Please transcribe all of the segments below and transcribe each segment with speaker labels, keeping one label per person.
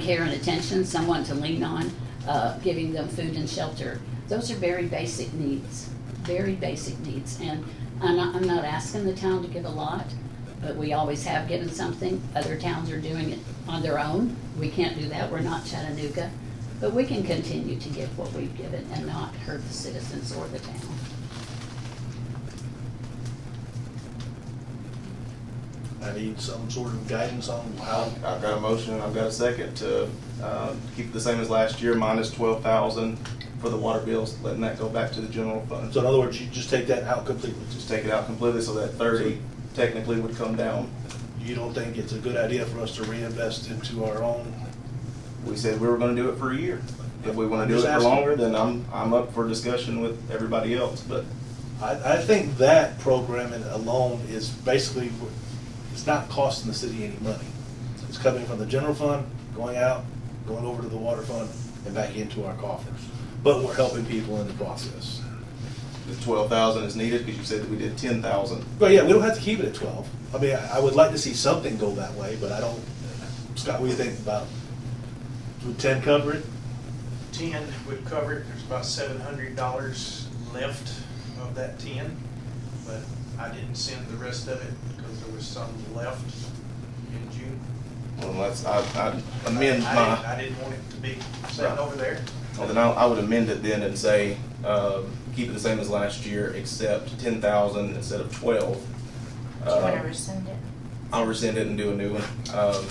Speaker 1: care and attention, someone to lean on, uh, giving them food and shelter. Those are very basic needs, very basic needs. And I'm not, I'm not asking the town to give a lot, but we always have given something. Other towns are doing it on their own. We can't do that. We're not Chattanooga. But we can continue to give what we've given and not hurt the citizens or the town.
Speaker 2: I need some sort of guidance on how,
Speaker 3: I've I've got a motion, and I've got a second to uh, keep it the same as last year, minus twelve thousand for the water bills, letting that go back to the general fund.
Speaker 2: so in other words, you just take that out completely.
Speaker 3: Just take it out completely, so that thirty technically would come down.
Speaker 2: You don't think it's a good idea for us to reinvest into our own?
Speaker 3: We said we were gonna do it for a year. If we wanna
Speaker 2: I'm
Speaker 3: do it
Speaker 2: just
Speaker 3: for
Speaker 2: asking.
Speaker 3: longer, then I'm, I'm up for discussion with everybody else, but
Speaker 2: I, I think that programming alone is basically, it's not costing the city any money. It's coming from the general fund, going out, going over to the water fund, and back into our coffers. But we're helping people in the process.
Speaker 3: the twelve thousand is needed, because you said that we did ten thousand.
Speaker 2: But yeah, we don't have to keep it at twelve. I mean, I, I would like to see something go that way, but I don't, Scott, what do you think about, would ten cover it?
Speaker 4: 10 would cover it, there's about $700 left of that 10, but I didn't send the rest of it because there was some left in June.
Speaker 3: Well, let's, I, I amend
Speaker 4: I- I
Speaker 3: my.
Speaker 4: didn't- I didn't want it to be sitting over there.
Speaker 3: Well, then I, I would amend it then and say, um, keep it the same as last year, except ten thousand instead of twelve.
Speaker 5: Do you want to
Speaker 3: Um,
Speaker 5: rescind it?
Speaker 3: I'll rescind it and do a new one, um,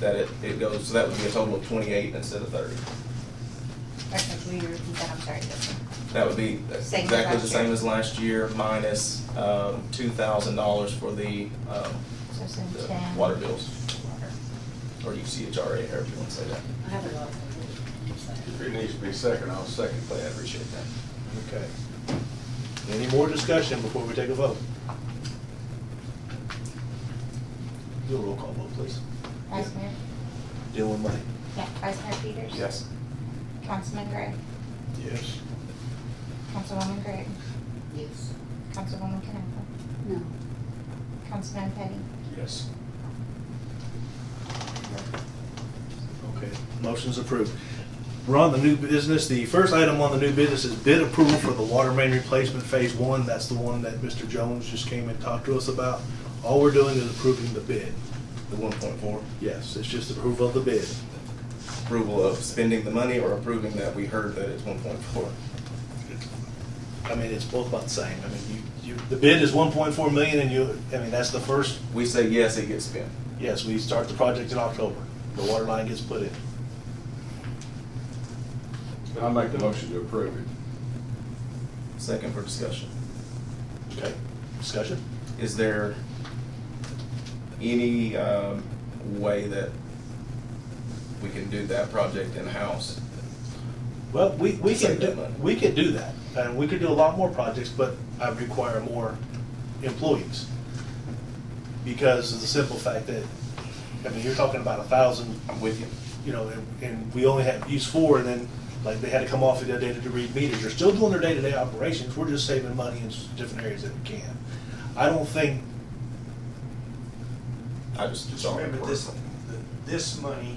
Speaker 3: that it, it goes, so that would be a total of twenty-eight instead of thirty.
Speaker 5: Or will you repeat that? I'm sorry, that's
Speaker 3: That would be that's
Speaker 5: Same as
Speaker 3: exactly the
Speaker 5: last
Speaker 3: same
Speaker 5: year.
Speaker 3: as last year, minus, um, two thousand dollars for the, um,
Speaker 5: So send
Speaker 3: the
Speaker 5: 10.
Speaker 3: water bills, or UCHRA, however you wanna say that.
Speaker 1: I have a lot of.
Speaker 6: If it needs to be second, I'll second that, I appreciate that.
Speaker 2: Okay. Any more discussion before we take a vote? Do a roll call vote, please.
Speaker 5: Vice Mayor?
Speaker 2: Dylan Money.
Speaker 5: Yeah, Vice Mayor Peters?
Speaker 3: Yes.
Speaker 5: Councilman Gray?
Speaker 2: Yes.
Speaker 5: Councilwoman Gray?
Speaker 1: Yes.
Speaker 5: Councilwoman Knappel?
Speaker 1: No.
Speaker 5: Councilman Petty?
Speaker 6: Yes.
Speaker 2: Okay, motion's approved. We're on the new business. The first item on the new business is bid approval for the water main replacement phase one. That's the one that Mr. Jones just came and talked to us about. All we're doing is approving the bid.
Speaker 3: The one point four,
Speaker 2: Yes, it's just approval of the bid.
Speaker 3: approval of spending the money or approving that we heard that it's one point four.
Speaker 2: I mean, it's both about the same. I mean, you, you, the bid is one point four million and you, I mean, that's the first
Speaker 3: We say yes, it gets spent.
Speaker 2: Yes, we start the project in October. The water line gets put in.
Speaker 6: I'll make the motion to approve it.
Speaker 3: Second for discussion.
Speaker 2: Okay, discussion?
Speaker 3: Is there any um, way that we can do that project in-house?
Speaker 2: Well, we, we can
Speaker 3: Save that
Speaker 2: do,
Speaker 3: money.
Speaker 2: we could do that, and we could do a lot more projects, but I require more employees. Because of the simple fact that, I mean, you're talking about a thousand,
Speaker 3: I'm with you.
Speaker 2: you know, and, and we only have, use four, and then, like, they had to come off the other day to read meters. They're still doing their day-to-day operations, we're just saving money in s- different areas that we can. I don't think,
Speaker 3: I just.
Speaker 4: Just remember this, the- this money,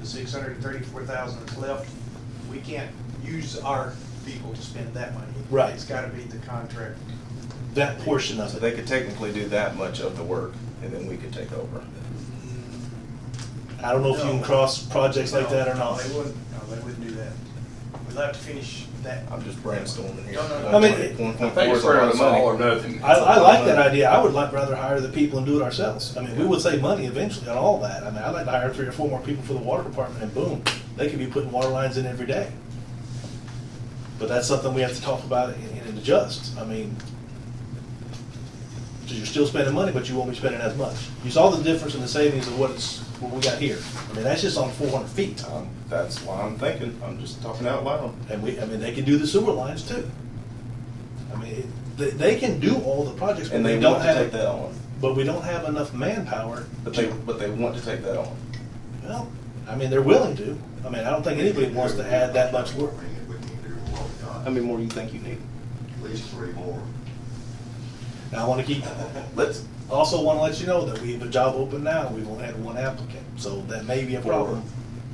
Speaker 4: the 634,000 that's left, we can't use our people to spend that money.
Speaker 2: Right.
Speaker 4: It's got to be the contract.
Speaker 2: that portion of
Speaker 3: So
Speaker 2: it.
Speaker 3: they could technically do that much of the work and then we could take over.
Speaker 2: I don't know if you can
Speaker 4: No.
Speaker 2: cross projects like
Speaker 4: No,
Speaker 2: that or
Speaker 4: no,
Speaker 2: not.
Speaker 4: They wouldn't, no, they wouldn't do that. We'd have to finish that.
Speaker 3: I'm just brainstorming here.
Speaker 4: No, no, no.
Speaker 2: I mean, it-
Speaker 3: One
Speaker 6: I
Speaker 3: point
Speaker 6: think
Speaker 3: four
Speaker 6: it's
Speaker 3: is a lot
Speaker 6: fair,
Speaker 3: of
Speaker 6: it's all or
Speaker 3: money.
Speaker 6: nothing.
Speaker 2: I, I like that idea. I would like rather hire the people and do it ourselves. I mean, we would save money eventually on all that. I mean, I'd like to hire three or four more people for the water department and boom, they could be putting water lines in every day. But that's something we have to talk about and, and adjust. I mean, so you're still spending money, but you won't be spending as much. You saw the difference in the savings of what it's, what we got here. I mean, that's just on four hundred feet.
Speaker 3: Um, That's why I'm thinking, I'm just talking out loud.
Speaker 2: And we, I mean, they can do the sewer lines too. I mean, it- they, they can do all the projects, but
Speaker 3: And
Speaker 2: they
Speaker 3: they
Speaker 2: don't
Speaker 3: want to
Speaker 2: have.
Speaker 3: take that on,
Speaker 2: But we don't have enough manpower.
Speaker 3: but they,
Speaker 2: to-
Speaker 3: but they want to take that on.
Speaker 2: Well, I mean, they're willing to. I mean, I don't think anybody wants to add that much work.
Speaker 3: How many more do you think you need?
Speaker 7: At least three more.
Speaker 2: Now, I want to keep,
Speaker 3: Let's,
Speaker 2: also want to let you know that we have a job open now. We've only had one applicant, so that may be a
Speaker 3: Four.
Speaker 2: problem.